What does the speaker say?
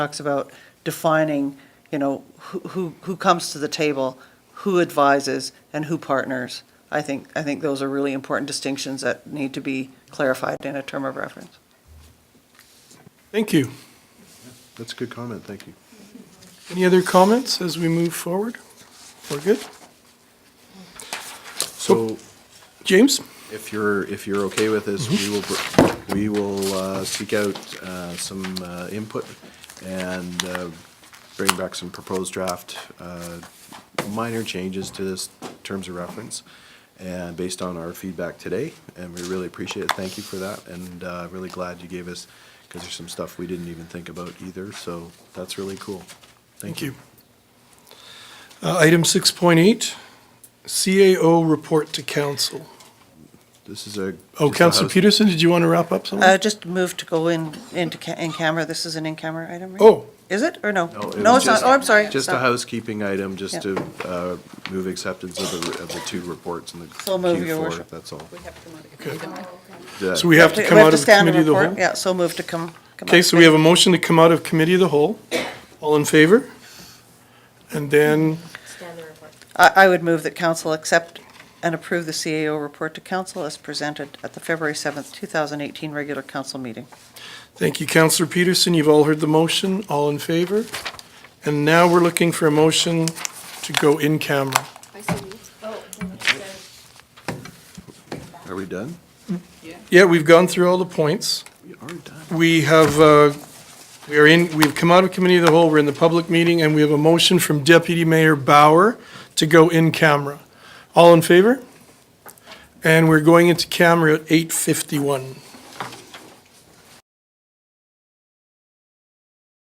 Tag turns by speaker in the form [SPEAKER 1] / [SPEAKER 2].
[SPEAKER 1] talks about defining, you know, who, who who comes to the table, who advises, and who partners. I think, I think those are really important distinctions that need to be clarified in a term of reference.
[SPEAKER 2] Thank you.
[SPEAKER 3] That's a good comment, thank you.
[SPEAKER 2] Any other comments as we move forward? We're good.
[SPEAKER 3] So
[SPEAKER 2] James?
[SPEAKER 3] if you're, if you're okay with this, we will, br- we will uh, seek out uh, some uh, input and uh, bring back some proposed draft, uh, minor changes to this terms of reference, and based on our feedback today, and we really appreciate it, thank you for that, and uh, really glad you gave us, because there's some stuff we didn't even think about either, so that's really cool.
[SPEAKER 2] Thank you. Uh, Item 6.8, CAO report to council.
[SPEAKER 3] This is a.
[SPEAKER 2] Oh,
[SPEAKER 3] just a
[SPEAKER 2] Council
[SPEAKER 3] house-
[SPEAKER 2] Peterson, did you want to wrap up something?
[SPEAKER 1] Uh, just move to go in, into, ca- in camera, this is an in-camera item, right?
[SPEAKER 2] Oh,
[SPEAKER 1] Is it, or no?
[SPEAKER 3] No, it
[SPEAKER 1] No,
[SPEAKER 3] was
[SPEAKER 1] it's not,
[SPEAKER 3] just-
[SPEAKER 1] oh, I'm sorry.
[SPEAKER 3] Just a
[SPEAKER 1] Sorry.
[SPEAKER 3] housekeeping item, just
[SPEAKER 1] Yeah.
[SPEAKER 3] to uh, move acceptance of the, of the two reports in the
[SPEAKER 1] So move, Your
[SPEAKER 3] Q4,
[SPEAKER 1] Worship.
[SPEAKER 3] that's all.
[SPEAKER 2] okay.
[SPEAKER 3] Did I-
[SPEAKER 2] So we have to
[SPEAKER 1] We
[SPEAKER 2] come
[SPEAKER 1] have
[SPEAKER 2] out
[SPEAKER 1] to
[SPEAKER 2] of
[SPEAKER 1] stay on
[SPEAKER 2] committee of the
[SPEAKER 1] report.
[SPEAKER 2] whole?
[SPEAKER 1] Yeah, so move to come. come
[SPEAKER 2] Okay,
[SPEAKER 1] out.
[SPEAKER 2] so we have a motion to come out of committee of the whole. All in favor? And then,
[SPEAKER 1] I, I would move that council accept and approve the CAO report to council as presented at the February 7th, 2018 regular council meeting.
[SPEAKER 2] thank you, Councillor Peterson, you've all heard the motion, all in favor? And now we're looking for a motion to go in camera.
[SPEAKER 4] I see these. Oh.
[SPEAKER 3] Are we done?
[SPEAKER 2] Yeah, we've gone through all the points.
[SPEAKER 3] We are done.
[SPEAKER 2] We have, uh, we are in, we've come out of committee of the whole, we're in the public meeting, and we have a motion from Deputy Mayor Bauer to go in camera. All in favor? And we're going into camera at 8:51.